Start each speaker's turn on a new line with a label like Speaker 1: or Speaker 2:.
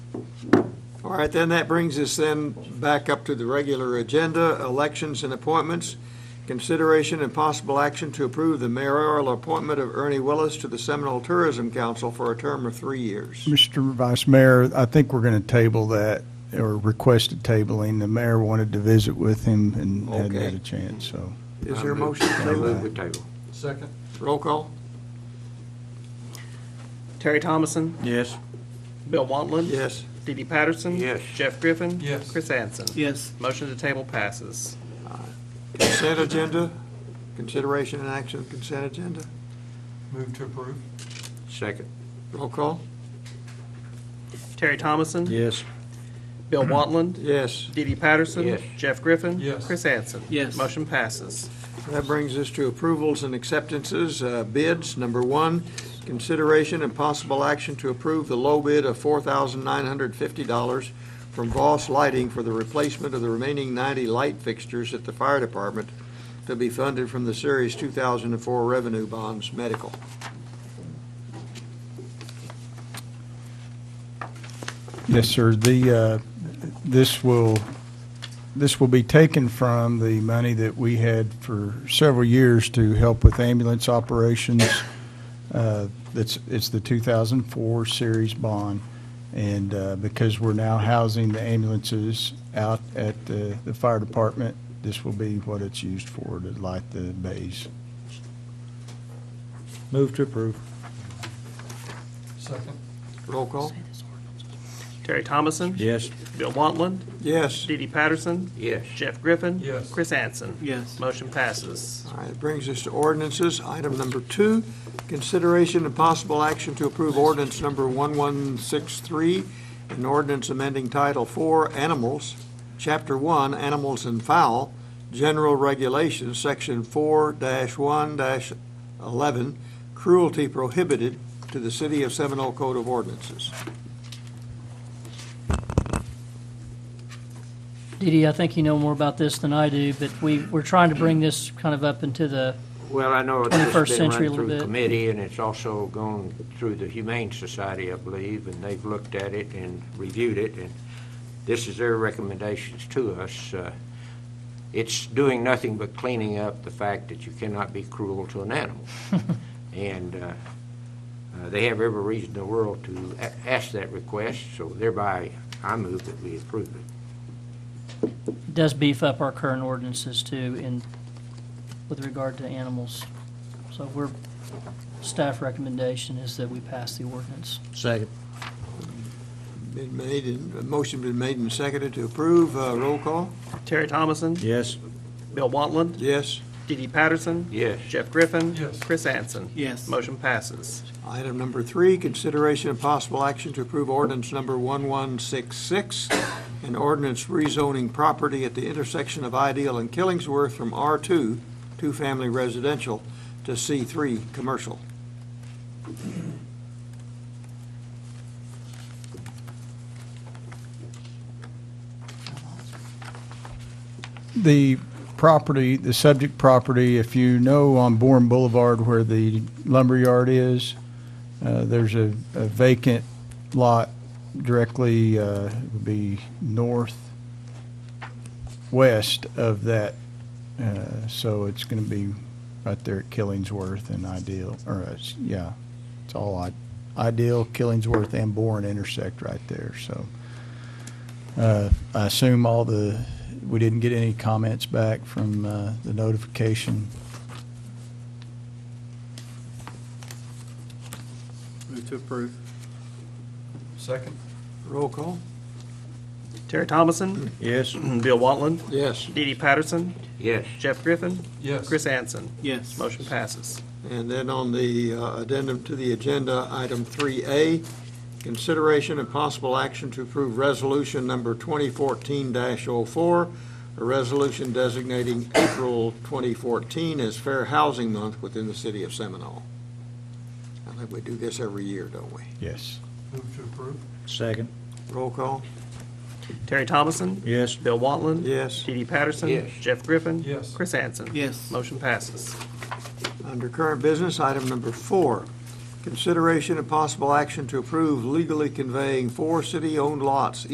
Speaker 1: All right, then that brings us then back up to the regular agenda, elections and appointments. Consideration and possible action to approve the mayoral appointment of Ernie Willis to the Seminole Tourism Council for a term of three years.
Speaker 2: Mr. Vice Mayor, I think we're going to table that, or requested tabling. The mayor wanted to visit with him and hadn't had
Speaker 1: Okay.
Speaker 2: a chance, so.
Speaker 1: Is there a motion to
Speaker 3: I move
Speaker 1: table?
Speaker 3: we table.
Speaker 4: Second?
Speaker 1: Roll call?
Speaker 5: Terry Thomason,
Speaker 3: Yes.
Speaker 5: Bill Wantland.
Speaker 1: Yes.
Speaker 5: Dee Dee Patterson.
Speaker 3: Yes.
Speaker 5: Jeff Griffin.
Speaker 4: Yes.
Speaker 5: Chris Anson.
Speaker 6: yes,
Speaker 5: Motion to table passes.
Speaker 1: Consent agenda? Consideration and action consent agenda?
Speaker 4: Move to approve?
Speaker 3: Second.
Speaker 1: Roll call?
Speaker 5: Terry Thomason.
Speaker 3: Yes.
Speaker 5: Bill Wantland.
Speaker 1: Yes.
Speaker 5: Dee Dee Patterson.
Speaker 3: Yes.
Speaker 5: Jeff Griffin.
Speaker 4: Yes.
Speaker 5: Chris Anson.
Speaker 6: Yes.
Speaker 5: Motion passes.
Speaker 1: That brings us to approvals and acceptances, uh, bids. Number one, consideration and possible action to approve the low bid of $4,950 from Voss Lighting for the replacement of the remaining 90 light fixtures at the fire department to be funded from the Series 2004 Revenue Bonds Medical.
Speaker 2: Yes, sir. The, uh, this will, this will be taken from the money that we had for several years to help with ambulance operations. Uh, It's, it's the 2004 series bond. And uh, because we're now housing the ambulances out at the, the fire department, this will be what it's used for, to light the bays.
Speaker 3: Move to approve.
Speaker 4: Second?
Speaker 1: Roll call?
Speaker 5: Terry Thomason.
Speaker 3: Yes.
Speaker 5: Bill Wantland.
Speaker 1: Yes.
Speaker 5: Dee Dee Patterson.
Speaker 3: Yes.
Speaker 5: Jeff Griffin.
Speaker 4: Yes.
Speaker 5: Chris Anson.
Speaker 6: yes.
Speaker 5: Motion passes.
Speaker 1: All right, it brings us to ordinances. Item number two, consideration and possible action to approve ordinance number 1163, an ordinance amending Title IV, Animals, Chapter 1, Animals and Fowl, General Regulations, Section 4-1-11, Cruelty Prohibited to the City of Seminole Code of Ordinances.
Speaker 7: Dee Dee, I think you know more about this than I do, but we, we're trying to bring this kind of up into the,
Speaker 3: Well, I know it's just
Speaker 7: 21st
Speaker 3: been
Speaker 7: century a
Speaker 3: run
Speaker 7: little
Speaker 3: through
Speaker 7: bit.
Speaker 3: committee, and it's also gone through the Humane Society, I believe, and they've looked at it and reviewed it, and this is their recommendations to us. Uh, It's doing nothing but cleaning up the fact that you cannot be cruel to an animal. And uh, uh, they have every reason in the world to a- ask that request, so thereby, I move that we approve it.
Speaker 7: does beef up our current ordinances too in, with regard to animals. So we're, staff recommendation is that we pass the ordinance.
Speaker 3: Second.
Speaker 1: Been made, and a motion been made and seconded to approve. Uh, Roll call?
Speaker 5: Terry Thomason.
Speaker 3: Yes.
Speaker 5: Bill Wantland.
Speaker 1: Yes.
Speaker 5: Dee Dee Patterson.
Speaker 3: Yes.
Speaker 5: Jeff Griffin.
Speaker 4: Yes.
Speaker 5: Chris Anson.
Speaker 6: Yes.
Speaker 5: Motion passes.
Speaker 1: Item number three, consideration of possible action to approve ordinance number 1166, an ordinance rezoning property at the intersection of Ideal and Killingsworth from R2, two-family residential, to C3, commercial.
Speaker 2: The property, the subject property, if you know on Bourne Boulevard where the lumberyard is, uh, there's a a vacant lot directly, uh, would be northwest of that. Uh, So it's going to be right there at Killingsworth and Ideal, or, uh, s- yeah, it's all I- Ideal, Killingsworth and Bourne intersect right there, so. Uh, I assume all the, we didn't get any comments back from uh, the notification.
Speaker 6: Move to approve.
Speaker 4: Second?
Speaker 1: Roll call?
Speaker 5: Terry Thomason.
Speaker 3: Yes.
Speaker 5: Bill Wantland.
Speaker 1: Yes.
Speaker 5: Dee Dee Patterson.
Speaker 3: Yes.
Speaker 5: Jeff Griffin.
Speaker 4: Yes.
Speaker 5: Chris Anson.
Speaker 6: Yes.
Speaker 5: Motion passes.
Speaker 1: And then on the uh, addendum to the agenda, item 3A, consideration and possible action to approve resolution number 2014-04, a resolution designating April 2014 as Fair Housing Month within the city of Seminole. I think we do this every year, don't we?
Speaker 2: Yes.
Speaker 4: Move to approve?
Speaker 3: Second.
Speaker 1: Roll call?
Speaker 5: Terry Thomason.
Speaker 3: Yes.
Speaker 5: Bill Wantland.
Speaker 1: Yes.
Speaker 5: Dee Dee Patterson.
Speaker 3: Yes.
Speaker 5: Jeff Griffin.
Speaker 4: Yes.
Speaker 5: Chris Anson.
Speaker 6: Yes.
Speaker 5: Motion passes.
Speaker 1: Under current business, item number four, consideration and possible action to approve legally conveying four city-owned lots